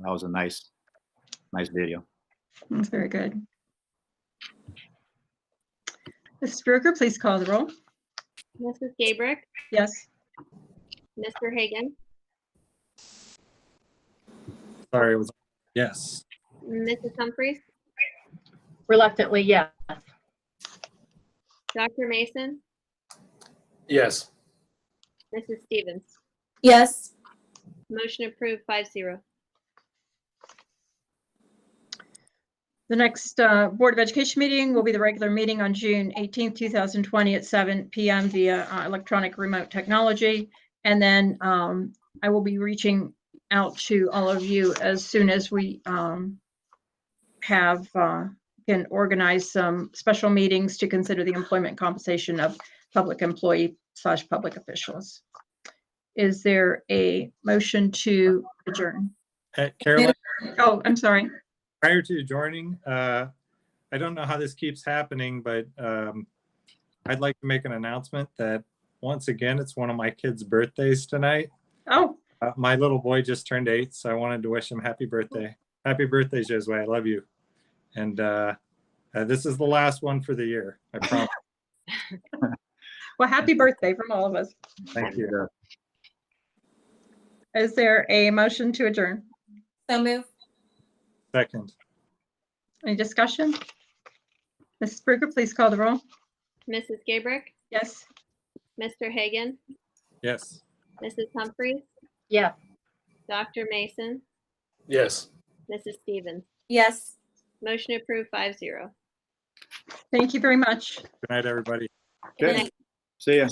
That was a nice, nice video. That's very good. Mrs. Bruker, please call the roll. Mrs. Gabrick, Yes. Mr. Hagan, Sorry, it was, yes. Mrs. Humphries, Reluctantly, yes. Dr. Mason, Yes. Mrs. Stevens. Yes. Motion approved five zero. The next uh, Board of Education meeting will be the regular meeting on June 18th, 2020 at 7 PM via uh, electronic remote technology. And then um, I will be reaching out to all of you as soon as we um, have, uh, can organize some special meetings to consider the employment compensation of public employee slash public officials. Is there a motion to adjourn? Uh, Carolyn, Oh, I'm sorry. prior to joining, uh, I don't know how this keeps happening, but um, I'd like to make an announcement that, once again, it's one of my kids' birthdays tonight. Oh, Uh, My little boy just turned eight, so I wanted to wish him happy birthday. Happy birthday, Josue. I love you. And uh, uh, this is the last one for the year, I promise. well, happy birthday from all of us. Thank you. Is there a motion to adjourn? So move. Second, Any discussion? Mrs. Bruker, please call the roll. Mrs. Gabrick, Yes. Mr. Hagan, yes. Mrs. Humphries, Yes. Dr. Mason, Yes. Mrs. Stevens. Yes. Motion approved five zero. Thank you very much. Good night, everybody. Okay, see ya.